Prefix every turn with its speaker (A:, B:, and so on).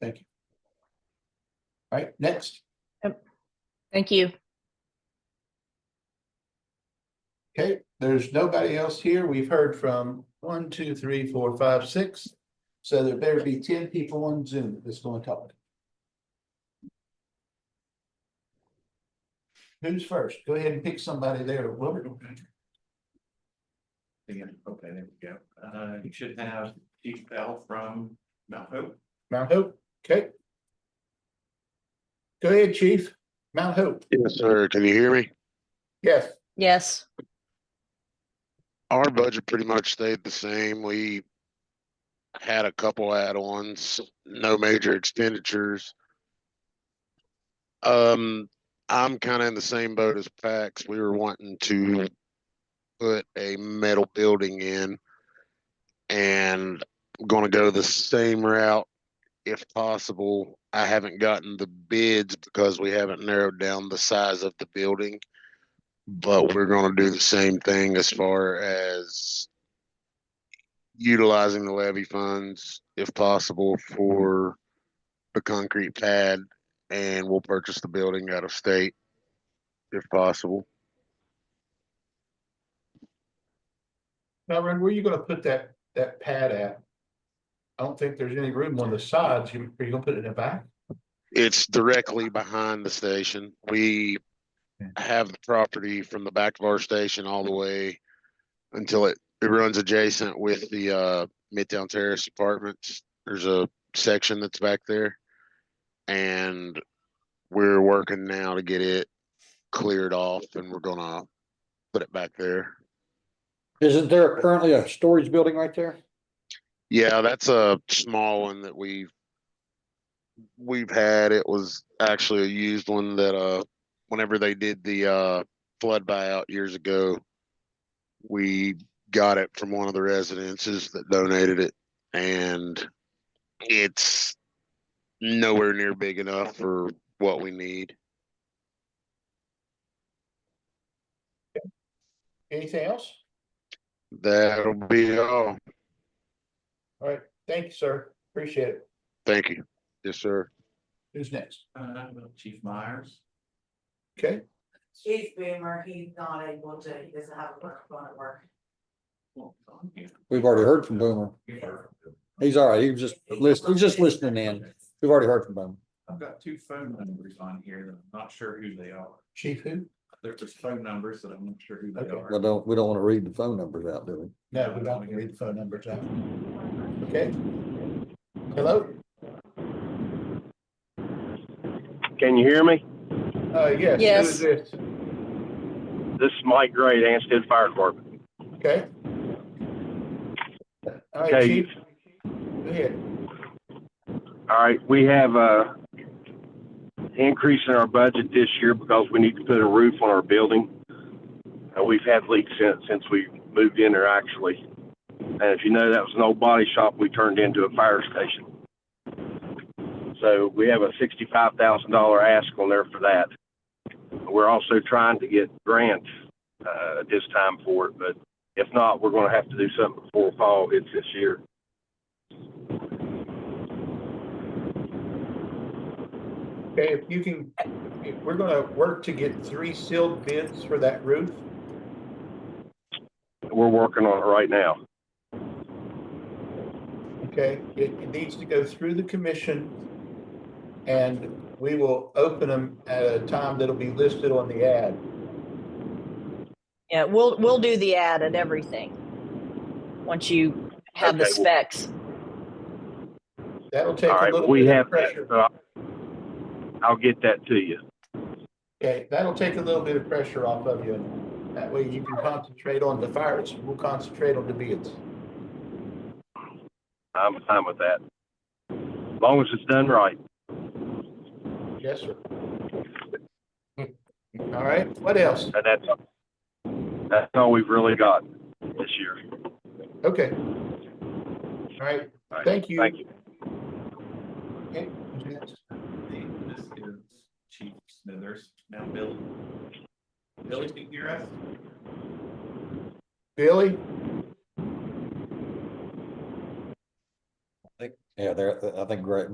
A: Thank you. All right, next.
B: Thank you.
A: Okay, there's nobody else here. We've heard from one, two, three, four, five, six. So there better be ten people on Zoom that's going to talk. Who's first? Go ahead and pick somebody there. Wilbur.
C: Yeah, okay, there we go. Uh, you should have Chief Bell from Mount Hope.
A: Mount Hope, okay. Go ahead, chief. Mount Hope,
D: Yes, sir. Can you hear me?
A: yes.
B: Yes,
D: Our budget pretty much stayed the same. We had a couple add-ons, no major expenditures. Um, I'm kind of in the same boat as Pax. We were wanting to put a metal building in. And I'm gonna go the same route if possible. I haven't gotten the bids because we haven't narrowed down the size of the building. But we're gonna do the same thing as far as utilizing the levy funds if possible for the concrete pad and we'll purchase the building out of state if possible.
A: Now, Ren, where are you gonna put that, that pad at? I don't think there's any room on the sides. You, are you gonna put it in the back?
D: It's directly behind the station. We have the property from the back of our station all the way until it, it runs adjacent with the, uh, Midtown Terrace Apartments. There's a section that's back there. And we're working now to get it cleared off and we're gonna put it back there.
E: Isn't there currently a storage building right there?
D: Yeah, that's a small one that we've we've had. It was actually a used one that uh whenever they did the uh flood buyout years ago, we got it from one of the residences that donated it and it's nowhere near big enough for what we need.
A: Anything else?
D: That'll be all.
A: All right, thank you, sir. Appreciate it.
D: Thank you. Yes, sir.
A: Who's next?
C: Uh, Chief Myers.
A: Okay,
F: Chief Boomer, he's not able to, he doesn't have a work phone at work.
E: We've already heard from Boomer. He's all right. He was just listening, he's just listening in. We've already heard from Boomer.
C: I've got two phone numbers on here that I'm not sure who they are.
A: chief who?
C: They're just phone numbers that I'm not sure who they
A: Okay.
E: We
C: are.
E: don't, we don't want to read the phone numbers out, do we?
A: No, we don't read the phone numbers out. Okay. Hello?
G: Can you hear me?
A: Uh, yes. who
B: Yes.
A: is this?
G: This is Mike Gray, Ansted Fire Department.
A: Okay. All right,
G: Okay.
A: chief. Go ahead.
G: All right, we have a increase in our budget this year because we need to put a roof on our building. Uh, we've had leaks since, since we moved in there actually. And if you know, that was an old body shop we turned into a fire station. So we have a sixty-five thousand dollar ask on there for that. We're also trying to get grants, uh, this time for it, but if not, we're gonna have to do something before fall, it's this year.
A: Okay, if you can, if we're gonna work to get three sealed bids for that roof.
G: We're working on it right now.
A: Okay, it, it needs to go through the commission. And we will open them at a time that'll be listed on the ad.
B: yeah, we'll, we'll do the ad and everything. Once you have the
G: Okay, well-
B: specs.
A: That'll take
G: All
A: a
G: right,
A: little
G: we
A: bit of
G: have that.
A: pressure.
G: so I'll- I'll get that to you.
A: Okay, that'll take a little bit of pressure off of you. That way you can concentrate on the fires. We'll concentrate on the bids.
G: I'm fine with that. As long as it's done right.
A: Yes, sir. All right, what else?
G: And that's, that's all we've really got this year.
A: Okay. All right,
G: All right,
A: Thank you.
G: Thank you.
A: okay, who's next?
C: This is Chief Smithers, now Billy. Billy, can you hear us?
A: Billy,
E: Yeah, there, I think Gray,